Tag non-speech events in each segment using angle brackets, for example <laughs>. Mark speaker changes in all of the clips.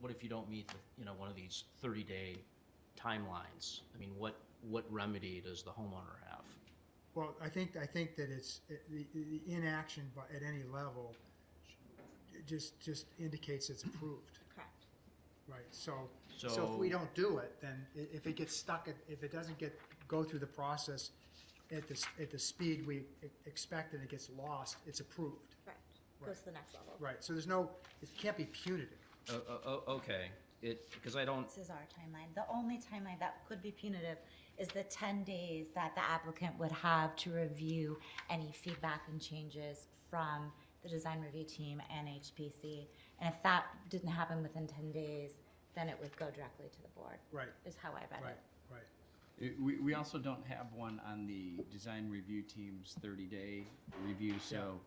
Speaker 1: what if you don't meet, the, you know, one of these thirty-day timelines? I mean, what, what remedy does the homeowner have?
Speaker 2: Well, I think, I think that it's, it- the, the inaction by, at any level, it just, just indicates it's approved,
Speaker 3: Correct.
Speaker 2: right? So, so if we
Speaker 1: So-
Speaker 2: don't do it, then i- if it gets stuck, at- if it doesn't get, go through the process at the, s- at the speed we e- expect and it gets lost, it's approved,
Speaker 3: Correct.
Speaker 2: Right.
Speaker 3: Goes to the next level.
Speaker 2: right? So there's no, it can't be punitive.
Speaker 1: Oh, oh, oh, okay, it, because I don't,
Speaker 4: This is our timeline. The only timeline that could be punitive is the ten days that the applicant would have to review any feedback and changes from the design review team and HPC. And if that didn't happen within ten days, then it would go directly to the board.
Speaker 2: Right,
Speaker 4: Is how I read
Speaker 2: right,
Speaker 4: it.
Speaker 2: right.
Speaker 5: It- Uh, We, we also don't have one on the design review team's thirty-day review, so,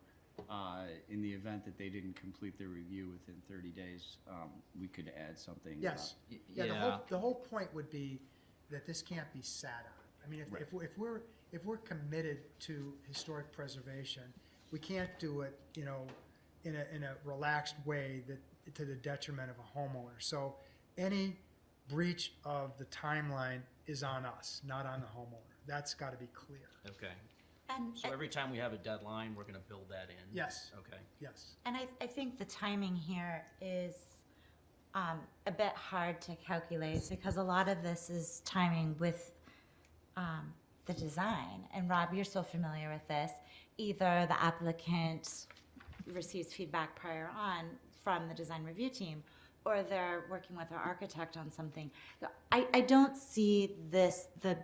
Speaker 5: uh, in the event that they didn't complete their review within thirty days, um, we could add something. uh, about-
Speaker 2: Yes.
Speaker 1: Y-
Speaker 2: Yeah, the
Speaker 1: yeah.
Speaker 2: whole, the whole point would be that this can't be sat on. I mean, if, if, we're- if we're, if we're committed to historic preservation, we can't do it, you know, in a, in a relaxed way that, to the detriment of a homeowner. So any breach of the timeline is on us, not on the homeowner. That's gotta be clear.
Speaker 1: okay.
Speaker 4: And,
Speaker 1: So every time we have a deadline, we're gonna build that in?
Speaker 2: Yes.
Speaker 1: Okay.
Speaker 2: Yes.
Speaker 4: and I, I think the timing here is um, a bit hard to calculate because a lot of this is timing with um, the design. And Rob, you're so familiar with this. Either the applicant receives feedback prior on from the design review team, or they're working with our architect on something. I, I don't see this, the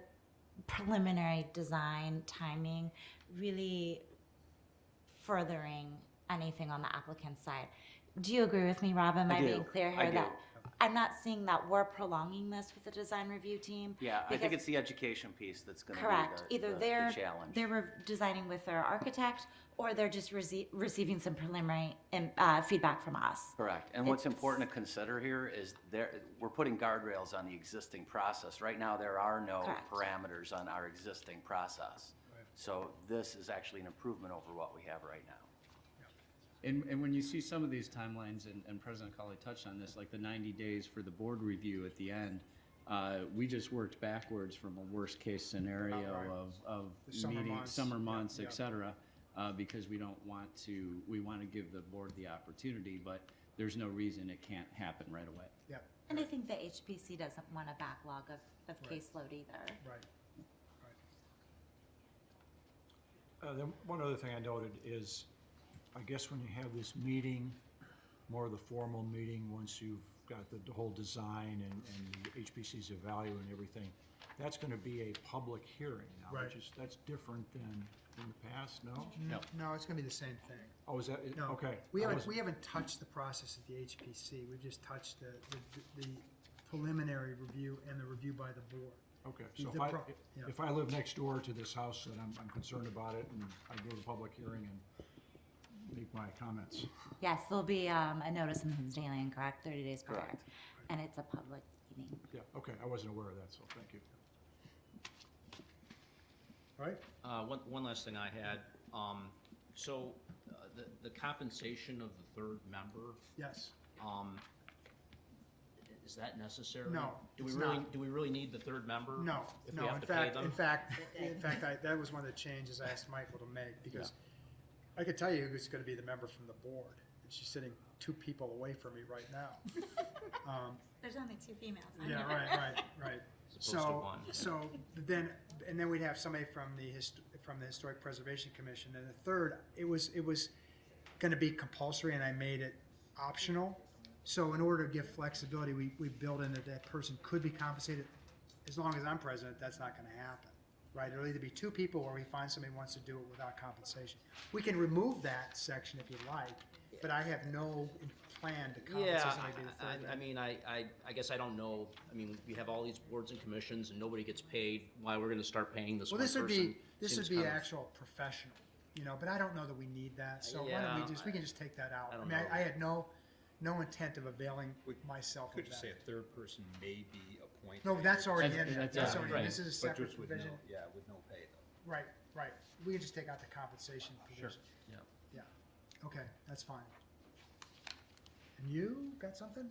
Speaker 4: preliminary design timing really furthering anything on the applicant's side. Do you agree with me, Rob? Am I being
Speaker 6: do.
Speaker 4: clear
Speaker 6: I
Speaker 4: here that?
Speaker 6: do.
Speaker 4: I'm not seeing that we're prolonging this with the design review team.
Speaker 6: Yeah, I think
Speaker 4: because-
Speaker 6: it's the education piece that's gonna be
Speaker 4: Correct,
Speaker 6: the,
Speaker 4: either
Speaker 6: the- the
Speaker 4: they're,
Speaker 6: challenge.
Speaker 4: they were designing with their architect, or they're just rece- receiving some preliminary, um, uh, feedback from us.
Speaker 6: Correct, and what's important to consider here is there, we're putting guardrails on the existing process. Right now, there are no
Speaker 4: Correct.
Speaker 6: parameters on our existing process. So this is actually an improvement over what we have right now.
Speaker 5: And, and when you see some of these timelines, and, and President Colley touched on this, like the ninety days for the board review at the end, uh, we just worked backwards from a worst-case
Speaker 2: About right.
Speaker 5: scenario of,
Speaker 2: The
Speaker 5: of
Speaker 2: summer
Speaker 5: meeting,
Speaker 2: months.
Speaker 5: summer
Speaker 2: Yeah,
Speaker 5: months,
Speaker 2: yeah.
Speaker 5: et cetera, uh, because we don't want to, we want to give the board the opportunity, but there's no reason it can't happen right away.
Speaker 2: Yeah,
Speaker 4: And I think the HPC doesn't want a backlog of, of caseload either.
Speaker 2: right.
Speaker 7: Uh, Then one other thing I noted is, I guess when you have this meeting, more of the formal meeting, once you've got the the whole design and, and the HPC's of value and everything, that's gonna be a public hearing now,
Speaker 2: Right.
Speaker 7: which is, that's different than in the past, no?
Speaker 5: No.
Speaker 2: No, it's gonna be the same thing.
Speaker 7: Oh, is that, it?
Speaker 2: No.
Speaker 7: okay.
Speaker 2: We
Speaker 7: I
Speaker 2: haven't,
Speaker 7: wasn't-
Speaker 2: we haven't touched the process at the HPC. We've just touched the, the- the preliminary review and the review by the board.
Speaker 7: Okay, so
Speaker 2: the
Speaker 7: if I,
Speaker 2: pro- yeah.
Speaker 7: if I live next door to this house and I'm, I'm concerned about it, and I go to the public hearing and make my comments.
Speaker 4: Yes, there'll be, um, a notice in the Hinsdale Land, correct, thirty days prior,
Speaker 6: Correct.
Speaker 4: and it's a public meeting.
Speaker 7: Yeah, okay, I wasn't aware of that, so thank you.
Speaker 2: All right?
Speaker 1: Uh, one, one last thing I had, um, so, uh, the, the compensation of the third member,
Speaker 2: Yes.
Speaker 1: um, is that necessary?
Speaker 2: No,
Speaker 1: Do we
Speaker 2: it's
Speaker 1: really,
Speaker 2: not.
Speaker 1: do we really need the third member?
Speaker 2: No,
Speaker 1: Um, If we
Speaker 2: no,
Speaker 1: have
Speaker 2: in
Speaker 1: to pay
Speaker 2: fact,
Speaker 1: them? <laughs>
Speaker 2: in fact, in fact, I, that was one of the changes I asked Michael to make, because I could tell you who's gonna be the member from the board. And she's sitting two people away from me right
Speaker 1: <laughs>
Speaker 2: now. Um,
Speaker 4: There's only two females
Speaker 2: Yeah, right, right, right.
Speaker 1: As opposed to
Speaker 2: So,
Speaker 1: one.
Speaker 2: so then, and then we'd have somebody from the hist- from the Historic Preservation Commission, and the third, it was, it was gonna be compulsory, and I made it optional. So in order to give flexibility, we, we built in that that person could be compensated, as long as I'm president, that's not gonna happen, right? It'll either be two people, or we find somebody who wants to do it without compensation. We can remove that section if you like, but I have no plan to compensate
Speaker 1: Yeah,
Speaker 2: somebody to be the
Speaker 1: I,
Speaker 2: third.
Speaker 1: I- I mean, I, I, I guess I don't know, I mean, we have all these boards and commissions and nobody gets paid, why we're gonna start paying this one
Speaker 2: Well, this
Speaker 1: person?
Speaker 2: would be, this
Speaker 1: seems
Speaker 2: would be
Speaker 1: kind of-
Speaker 2: actual professional, you know, but I don't know that we need that, so why don't
Speaker 1: Yeah,
Speaker 2: we just, we can just take that out.
Speaker 1: I
Speaker 2: I
Speaker 1: don't
Speaker 2: mean,
Speaker 1: know.
Speaker 2: I, I had no, no intent of availing
Speaker 8: We
Speaker 2: myself of
Speaker 8: Could you say
Speaker 2: that.
Speaker 8: a third person may be appointed?
Speaker 2: No, that's already in there,
Speaker 5: That's-
Speaker 2: that's
Speaker 5: yeah,
Speaker 2: already, in.
Speaker 1: uh, right.
Speaker 2: this is a
Speaker 8: But
Speaker 2: separate
Speaker 8: just with no,
Speaker 2: provision,
Speaker 8: yeah, with no pay though.
Speaker 2: right, right, we can just take out the compensation provision,
Speaker 1: Yeah.
Speaker 2: yeah, okay, that's fine. And you, got something?